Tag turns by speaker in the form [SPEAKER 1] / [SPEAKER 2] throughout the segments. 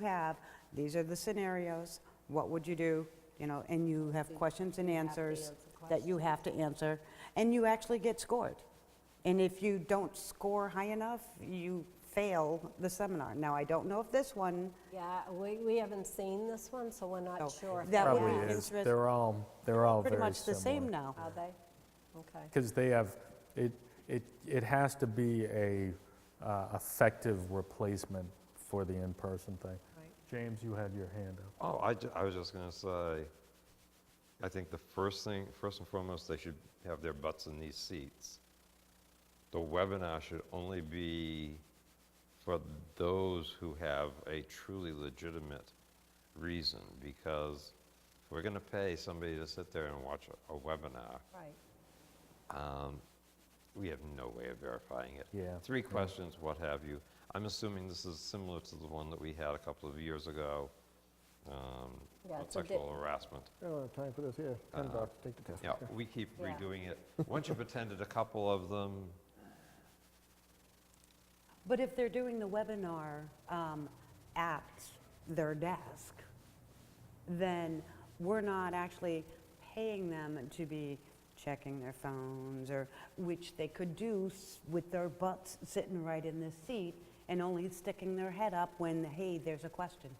[SPEAKER 1] you have, these are the scenarios, what would you do? You know, and you have questions and answers that you have to answer, and you actually get scored. And if you don't score high enough, you fail the seminar. Now, I don't know if this one,
[SPEAKER 2] Yeah, we, we haven't seen this one, so we're
[SPEAKER 1] No,
[SPEAKER 2] not sure. if
[SPEAKER 1] that
[SPEAKER 2] they
[SPEAKER 1] would
[SPEAKER 2] have.
[SPEAKER 1] be
[SPEAKER 3] Probably is.
[SPEAKER 1] interest-
[SPEAKER 3] They're all, they're all
[SPEAKER 1] pretty
[SPEAKER 3] very
[SPEAKER 1] much the same
[SPEAKER 3] similar.
[SPEAKER 1] now.
[SPEAKER 2] Are they? Okay.
[SPEAKER 3] Because they have, it, it, it has to be a uh, effective replacement for the in-person thing. James, you had your hand up.
[SPEAKER 4] Oh, I, ju- I was just gonna say, I think the first thing, first and foremost, they should have their butts in these seats. The webinar should only be for those who have a truly legitimate reason, because if we're gonna pay somebody to sit there and watch a- a webinar,
[SPEAKER 2] Right.
[SPEAKER 4] we have no way of verifying it.
[SPEAKER 3] Yeah,
[SPEAKER 4] Three
[SPEAKER 3] yeah.
[SPEAKER 4] questions, what have you. I'm assuming this is similar to the one that we had a couple of years ago, um,
[SPEAKER 2] Yeah,
[SPEAKER 4] on
[SPEAKER 2] it's a di-
[SPEAKER 4] sexual harassment.
[SPEAKER 5] I don't have Oh, time for this, here, ten bucks,
[SPEAKER 3] Uh,
[SPEAKER 5] take the test.
[SPEAKER 4] Yeah, we keep
[SPEAKER 2] Yeah.
[SPEAKER 4] redoing it. Once you've attended a couple of them,
[SPEAKER 1] But if they're doing the webinar um, at their desk, then we're not actually paying them to be checking their phones or, which they could do s- with their butts sitting right in the seat and only sticking their head up when, hey, there's a question.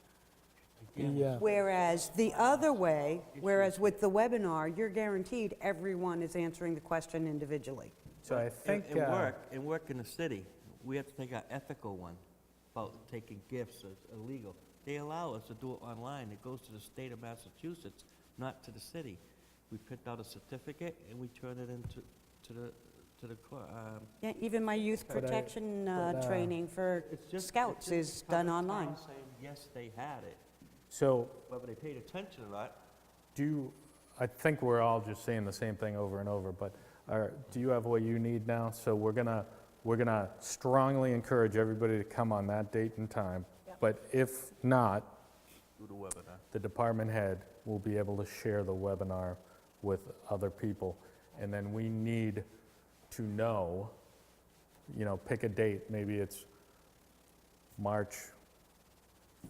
[SPEAKER 3] Yeah.
[SPEAKER 1] Whereas the other way, whereas with the webinar, you're guaranteed everyone is answering the question individually.
[SPEAKER 3] So I think,
[SPEAKER 6] In
[SPEAKER 3] uh,
[SPEAKER 6] work, in work in the city, we have to take our ethical one about taking gifts, it's illegal. They allow us to do it online, it goes to the state of Massachusetts, not to the city. We print out a certificate and we turn it into, to the, to the, cor- um,
[SPEAKER 1] Yeah, even my youth
[SPEAKER 3] But I-
[SPEAKER 1] protection uh,
[SPEAKER 3] but, uh,
[SPEAKER 1] training for
[SPEAKER 6] it's just. it's
[SPEAKER 1] scouts
[SPEAKER 6] just
[SPEAKER 1] is
[SPEAKER 6] common
[SPEAKER 1] done
[SPEAKER 6] sense
[SPEAKER 1] online.
[SPEAKER 6] Saying, yes, they had it,
[SPEAKER 3] so
[SPEAKER 6] whether they paid attention or not,
[SPEAKER 3] do, you- I think we're all just saying the same thing over and over, but are- do you have what you need now? So we're gonna, we're gonna strongly encourage everybody to come on that date and time. But if not,
[SPEAKER 6] do the webinar.
[SPEAKER 3] the department head will be able to share the webinar with other people. And then we need to know, you know, pick a date, maybe it's March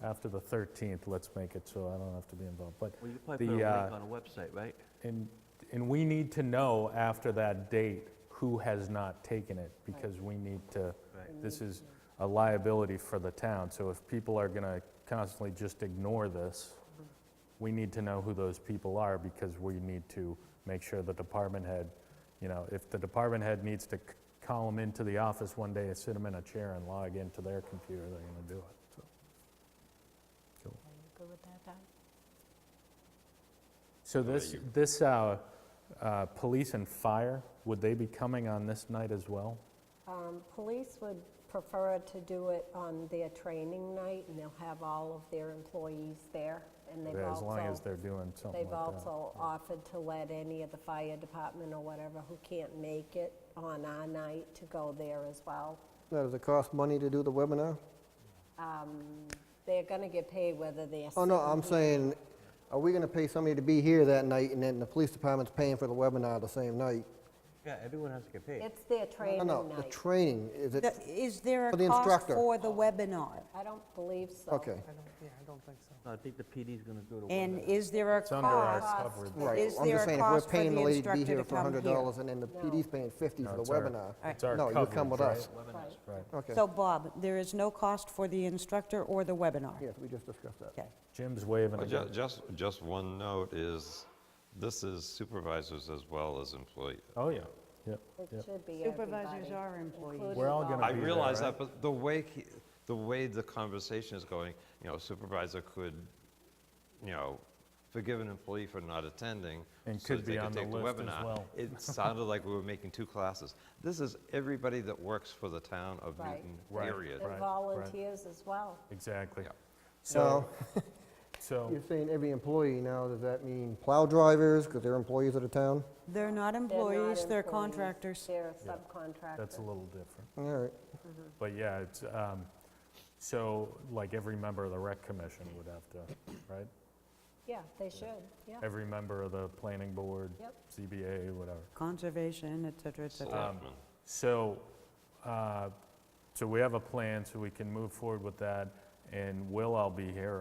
[SPEAKER 3] after the 13th, let's make it so I don't have to be involved, but,
[SPEAKER 6] Well, you probably put a
[SPEAKER 3] The,
[SPEAKER 6] link
[SPEAKER 3] uh,
[SPEAKER 6] on a website, right?
[SPEAKER 3] and, and we need to know after that date who has not taken it, because we need to,
[SPEAKER 6] Right.
[SPEAKER 3] this is a liability for the town, so if people are gonna constantly just ignore this, we need to know who those people are, because we need to make sure the department head, you know, if the department head needs to c- call them into the office one day and sit them in a chair and log into their computer, they're gonna do it, so. Cool.
[SPEAKER 2] Are you good with that, Don?
[SPEAKER 3] So this,
[SPEAKER 4] you-
[SPEAKER 3] this, uh, uh, police and fire, would they be coming on this night as well?
[SPEAKER 2] Um, Police would prefer to do it on their training night, and they'll have all of their employees there. And they've
[SPEAKER 3] As long as
[SPEAKER 2] also,
[SPEAKER 3] they're doing something
[SPEAKER 2] they've
[SPEAKER 3] like that.
[SPEAKER 2] also offered to let any of the fire department or whatever who can't make it on our night to go there as well.
[SPEAKER 5] Now, does it cost money to do the webinar?
[SPEAKER 2] Um, They're going to get paid whether they're.
[SPEAKER 5] Oh, no,
[SPEAKER 2] sitting
[SPEAKER 5] I'm
[SPEAKER 2] here-
[SPEAKER 5] saying, are we gonna pay somebody to be here that night, and then the police department's paying for the webinar the same night?
[SPEAKER 6] Yeah, everyone has to get paid.
[SPEAKER 2] It's their
[SPEAKER 5] No,
[SPEAKER 2] training
[SPEAKER 5] no, the
[SPEAKER 2] night.
[SPEAKER 5] training, is it,
[SPEAKER 1] Th- Is there a
[SPEAKER 5] For the
[SPEAKER 1] cost
[SPEAKER 5] instructor.
[SPEAKER 1] for the webinar?
[SPEAKER 2] I don't believe so.
[SPEAKER 5] okay.
[SPEAKER 6] I think the PD's gonna do the webinar.
[SPEAKER 1] And is there a
[SPEAKER 3] It's under our
[SPEAKER 1] cost?
[SPEAKER 3] coverage.
[SPEAKER 5] Right,
[SPEAKER 1] Is
[SPEAKER 5] I'm
[SPEAKER 1] there
[SPEAKER 5] just
[SPEAKER 1] a
[SPEAKER 5] saying, if we're
[SPEAKER 1] cost for
[SPEAKER 5] paying
[SPEAKER 1] the
[SPEAKER 5] the lady to be
[SPEAKER 1] instructor to
[SPEAKER 5] here for
[SPEAKER 1] come here?
[SPEAKER 5] hundred dollars, and then the
[SPEAKER 2] No.
[SPEAKER 5] PD's paying fifty
[SPEAKER 3] No,
[SPEAKER 5] for the
[SPEAKER 3] it's our-
[SPEAKER 5] webinar.
[SPEAKER 3] It's our
[SPEAKER 5] No, you come with
[SPEAKER 3] coverage,
[SPEAKER 5] us.
[SPEAKER 6] Webinars.
[SPEAKER 2] Right.
[SPEAKER 3] Right.
[SPEAKER 5] Okay,
[SPEAKER 1] So Bob, there is no cost for the instructor or the webinar?
[SPEAKER 5] yes, we just discussed that.
[SPEAKER 1] Okay.
[SPEAKER 3] Jim's waving
[SPEAKER 4] Uh, ju-
[SPEAKER 3] again.
[SPEAKER 4] just, just one note is, this is supervisors as well as employees.
[SPEAKER 3] Oh, yeah, yep,
[SPEAKER 2] It
[SPEAKER 3] yep.
[SPEAKER 2] should be
[SPEAKER 1] Supervisors
[SPEAKER 2] everybody,
[SPEAKER 1] are employees.
[SPEAKER 2] including
[SPEAKER 3] We're all
[SPEAKER 2] Bob.
[SPEAKER 3] gonna
[SPEAKER 4] I
[SPEAKER 3] be there,
[SPEAKER 4] realize that, but the way, he- the way the conversation is going, you know, supervisor could, you know, forgive an employee for not attending.
[SPEAKER 3] And
[SPEAKER 4] so
[SPEAKER 3] could
[SPEAKER 4] that they
[SPEAKER 3] be on the
[SPEAKER 4] take
[SPEAKER 3] list as
[SPEAKER 4] webinar.
[SPEAKER 3] well.
[SPEAKER 4] It sounded like we were making two classes. This is everybody that works for the town of
[SPEAKER 2] Right.
[SPEAKER 4] Newton,
[SPEAKER 3] Right.
[SPEAKER 4] period.
[SPEAKER 2] And
[SPEAKER 3] right.
[SPEAKER 2] volunteers as well.
[SPEAKER 3] Exactly.
[SPEAKER 4] Yeah.
[SPEAKER 3] So, so,
[SPEAKER 5] You're saying every employee now, does that mean plow drivers, because they're employees of the town?
[SPEAKER 1] They're not
[SPEAKER 2] They're not
[SPEAKER 1] employees, they're
[SPEAKER 2] employees,
[SPEAKER 1] contractors.
[SPEAKER 2] They're
[SPEAKER 3] Yeah.
[SPEAKER 2] subcontractors.
[SPEAKER 3] that's a little different.
[SPEAKER 5] All right,
[SPEAKER 3] But yeah, it's, um, so like every member of the rec commission would have to, right?
[SPEAKER 2] Yeah, they should, yeah.
[SPEAKER 3] Every member of the planning board,
[SPEAKER 2] Yep.
[SPEAKER 3] CBA, whatever.
[SPEAKER 1] Conservation, et cetera, et cetera.
[SPEAKER 4] Selectmen.
[SPEAKER 3] So, uh, so we have a plan, so we can move forward with that. and Will, I'll be here,